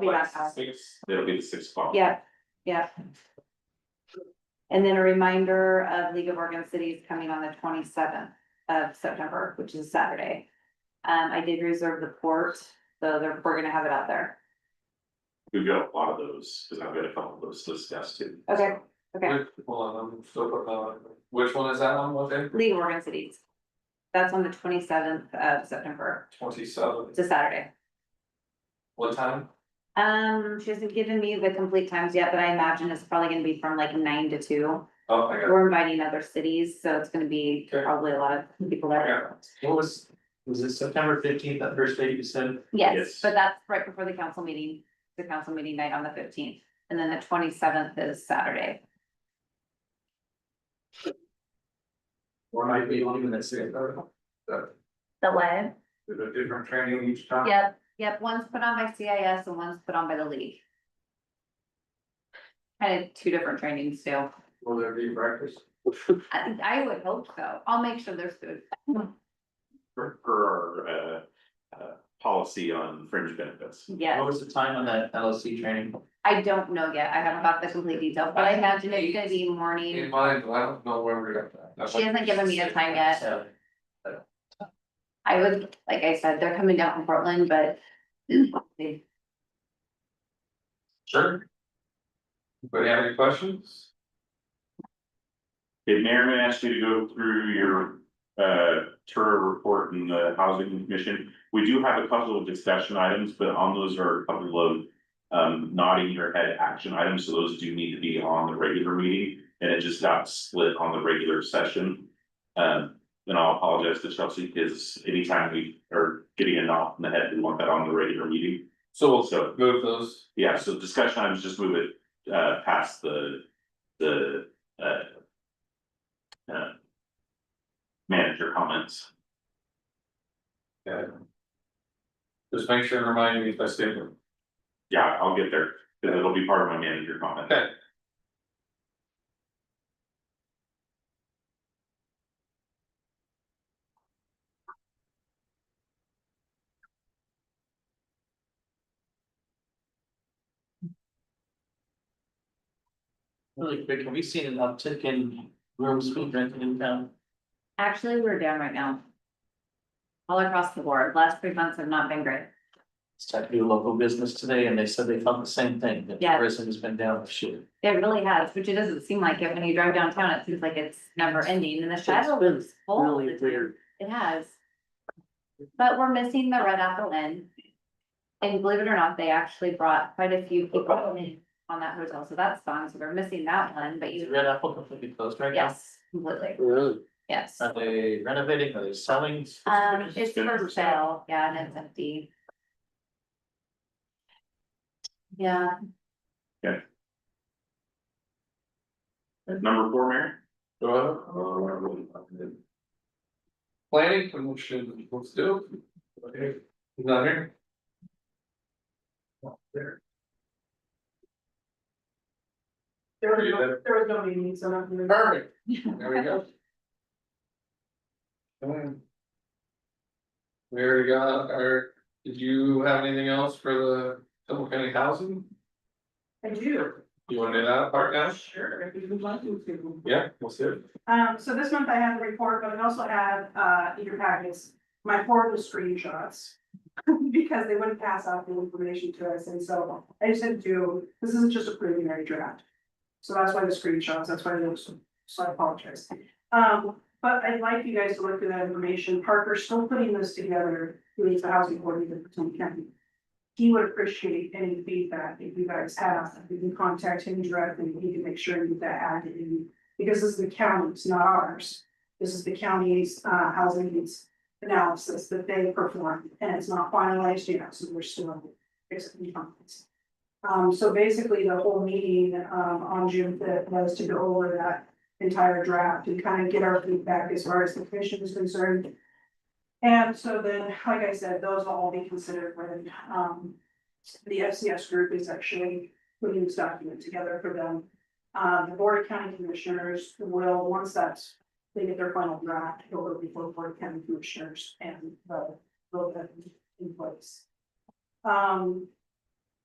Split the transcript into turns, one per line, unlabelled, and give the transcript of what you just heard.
be
like
that fast.
Six, it'll be the six o'clock.
Yeah, yeah. And then a reminder of League of Oregon Cities coming on the twenty seventh of September, which is Saturday. Um, I did reserve the port, so they're, we're gonna have it out there.
We've got a lot of those, because I've got a couple of those to discuss too.
Okay.
So,
Okay,
Hold on, I'm still putting that
uh,
on. Which one is that on, what day?
League of Oregon Cities. That's on the twenty seventh of September,
Twenty seven,
it's a Saturday.
what time?
Um, she hasn't given me the complete times yet, but I imagine it's probably gonna be from like nine to two.
Oh, I got it.
We're inviting other cities, so it's gonna be
Okay.
probably a lot of people there.
What was, was it September fifteenth, that first date you said?
Yes,
Yes.
but that's right before the council meeting, the council meeting night on the fifteenth, and then the twenty seventh is Saturday.
Or might be on even that second.
The what?
Is it different training each time?
Yep, yep, one's put on by CIS and one's put on by the league. Kind of two different trainings too.
Will there be breakfast?
I, I would hope so. I'll make sure there's food.
For, for our, uh, uh, policy on fringe benefits.
Yes,
What was the time on that LLC training?
I don't know yet. I haven't got the complete details, but I imagine it's gonna be
In
morning.
mind, I don't know where we're at. That's
She
like-
hasn't given me a time yet.
So,
I would, like I said, they're coming down from Portland, but they
Sure. Anybody have any questions?
Did Merriman ask you to go through your uh tour report in the housing commission? We do have a couple of discussion items, but on those are a couple of. Um nodding your head action items, so those do need to be on the regular meeting, and it just got split on the regular session. Um, and I'll apologize to Chelsea, because anytime we are getting a knock in the head, we want that on the regular meeting.
So
So-
we'll move those,
Yeah, so discussion items, just move it uh past the the uh. uh, Manager comments.
just make sure and remind me if I say them.
Yeah, I'll get there, because it'll be part of my manager comment.
Okay.
Really quick, have we seen an uptick in rooms being rented in town?
Actually, we're down right now. All across the board, last three months have not been great.
It's time to do local business today and they said they felt the same thing, that
Yeah.
tourism has been down this year.
It really has, which it doesn't seem like it when you drive downtown, it seems like it's never ending and the shadow
been
is full. all the time. It has. But we're missing the Red Apple Inn. And believe it or not, they actually brought quite a few people on that hotel, so that's fun, so we're missing that one, but
Is
you,
Red Apple completely closed right now?
yes, completely,
Really?
yes.
Are they renovating, are they selling?
Um, it's
Good.
for sale, yeah, and it's empty. Yeah,
Number four, Mayor?
Uh, Planning commission, let's do. it. Okay, He's not here. Not There.
There was no, there was no meeting, so nothing. to-
Perfect, there we go. Um, We already got our, did you have anything else for the Humboldt County Housing?
I do.
You wanna do that part now?
Sure, if you would like me to.
Yeah, we'll see. it.
Um, so this month I had the report, but I also had, uh, in your packets, my horrible screenshots. Because they wouldn't pass out the information to us, and so I just had to, do- this isn't just a preliminary draft. So that's why the screenshots, that's why those, so I apologize. Um, but I'd like you guys to look through that information, Parker's still putting this together, he leads the housing board in Potomac County. He would appreciate any feedback if you guys have, you can contact him directly, he can make sure you get that added in because this is the county's, not ours. This is the county's uh housing needs analysis that they performed, and it's not finalized yet, so we're still basically finalizing. Um, so basically, the whole meeting um on June fifth was to go over that entire draft and kind of get our feedback as far as the commission is concerned. And so then, like I said, those will all be considered when um the FCS group is actually putting this document together for them. Uh, the Board of County Commissioners will, once that's, they get their final draft, it'll go before the Board of County Commissioners and the, will be in place. Um,